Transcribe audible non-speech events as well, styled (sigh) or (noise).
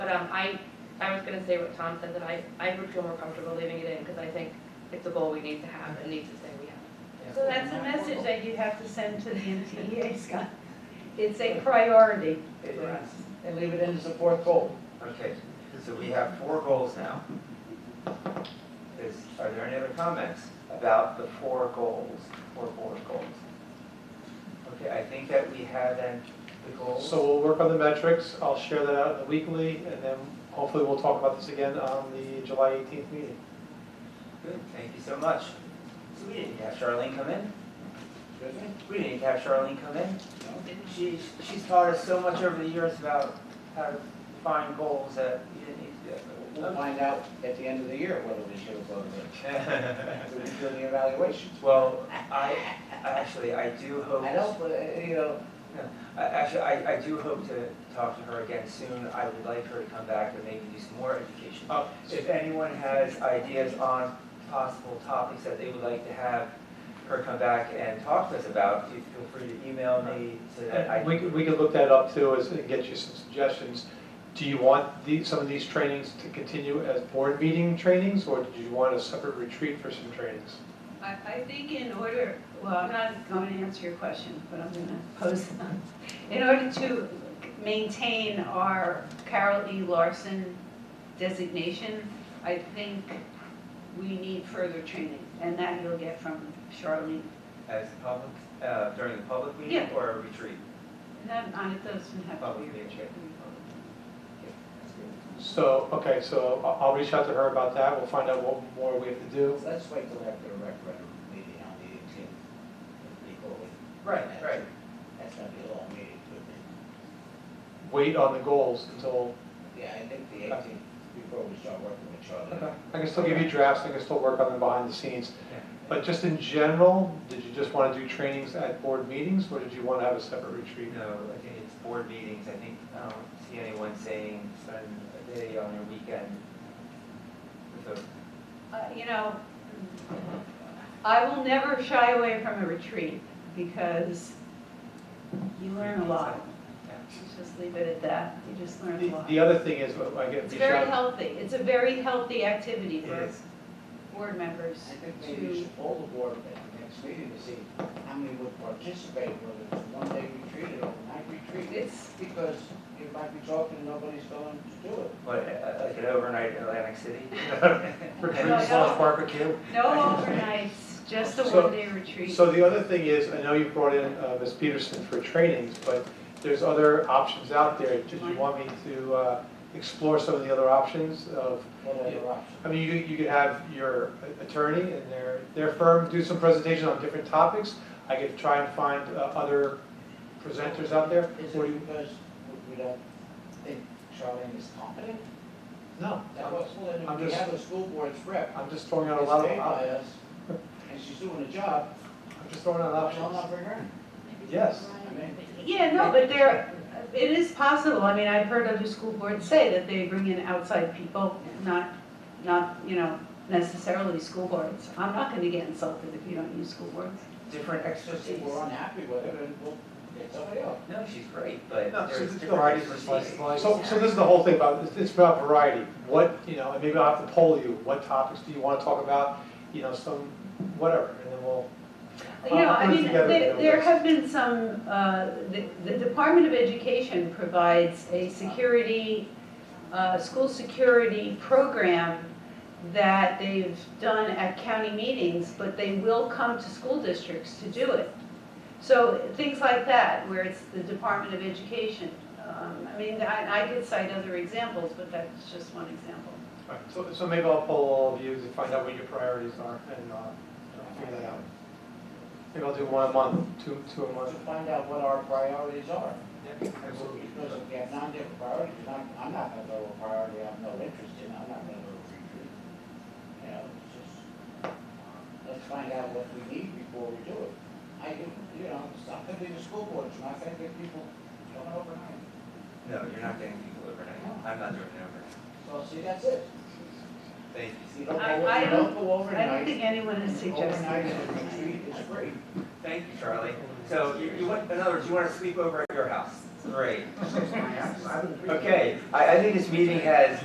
um, I, I was gonna say what Tom said, that I, I would feel more comfortable leaving it in, because I think it's a goal we need to have and need to say we have. So that's a message that you have to send to the MTA, Scott. It's a priority for us. And leave it in as a fourth goal. Okay, so we have four goals now. Is, are there any other comments about the four goals, four board goals? Okay, I think that we had then the goals. So we'll work on the metrics, I'll share that out in the weekly, and then hopefully we'll talk about this again on the July 18th meeting. Good, thank you so much. So we didn't have Charlene come in? We didn't have Charlene come in? She, she's taught us so much over the years about how to find goals that you didn't need to do. We'll find out at the end of the year whether we should have voted it. (laughs) We'll do the evaluation. Well, I, actually, I do hope. I don't, uh, you know, I- Actually, I, I do hope to talk to her again soon. I would like her to come back and maybe do some more education. Uh, If anyone has ideas on possible topics that they would like to have her come back and talk to us about, you feel free to email me so that I. And Uh, We could, we could look that up too, as, and get you some suggestions. Do you want these, some of these trainings to continue as board meeting trainings, or do you want a separate retreat for some trainings? I, I think in order, well, I'm not going to answer your question, but I'm going to pose them. In order to maintain our Carol E. Larson designation, I think we need further training, and that you'll get from Charlene. As public, uh, during the public meeting Yeah. or a retreat? And that, on it doesn't have to Public be a meeting, okay. That's good. So, okay, so I- I'll reach out to her about that, we'll find out what more we have to do. let's wait till after the referendum meeting on the eighteenth before we. Right, right. That's gonna be a long meeting, but, Wait on the goals until, yeah, I think the eighteenth, before we start working with Charlie. I can still give you drafts, I can still work on them behind the scenes. Yeah. But just in general, did you just want to do trainings at board meetings, or did you want to have a separate retreat? No, I think it's board meetings, I think, I don't see anyone saying spend a day on your weekend with a Uh, You know, I will never shy away from a retreat because you learn a lot. Let's just leave it at that. You just learn a The- lot. The other thing is, oh, I get It's reach very out, healthy. It's a very healthy activity It for is. board members I think maybe you to, should poll the board at the next meeting to see how many would participate, whether it's a one-day retreat or a night retreat. it's, Because you might be talking, and nobody's going to do it. What, uh, like an overnight in Atlantic City? (laughs) retreat No, I slash don't. barbecue. no overnights, just a So- one-day retreat. So the other thing is, I know you brought in uh, Ms. Peterson for trainings, but there's other options out there. Did you want me to uh, explore some of the other options of, What other option? I mean, you you could have your attorney and their, their firm do some presentation on different topics. I could try and find uh, other presenters out there. Is Or you- it because we don't think Charlene is competent? No, That was, well, I'm then we just- have a school board's rep, I'm just throwing is out a paid lot of, by op- us, and she's doing a job, I'm just throwing out why not options. not bring her? Yes. I mean, Yeah, no, but there, it is possible. I mean, I've heard other school boards say that they bring in outside people, not, not, you know, necessarily school boards. I'm not gonna get insulted if you don't use school boards. Different just if expertise. we're unhappy with it, and we'll get somebody else. No, she's great, but No, she's there's a different good- expertise. So, so this is the whole thing about, it's- it's about variety. What, you know, and maybe I'll have to poll you, what topics do you want to talk about, you know, some, whatever, and then we'll, You know, I Uh, Put it mean, together, there, you know, there that's- have been some, uh, the, the Department of Education provides a security, uh, school security program that they've done at county meetings, but they will come to school districts to do it. So things like that, where it's the Department of Education. Um, I mean, I, I could cite other examples, but that's just one example. all right, so, so maybe I'll poll all of you to find out what your priorities are and, uh, figure that out. Maybe I'll do one a month, two, two a To month. find out what our priorities are, Yeah, absolutely. because if we have non-different priorities, and I'm, I'm not gonna go with a priority I have no interest in, I'm not gonna go with retreat. You know, it's just, let's find out what we need before we do it. I, you know, it's not gonna be the school board, it's not gonna get people coming overnight. No, you're not getting people overnight. I'm not doing it overnight. Well, see, that's it. Thank If you. you don't I- go, I you don't- don't go I don't overnight, think anyone is suggesting. overnight is a retreat, it's great. Thank you, Charlie. So you, you want, in other words, you want to sleep over at your house? Great. Okay, I, I think this meeting has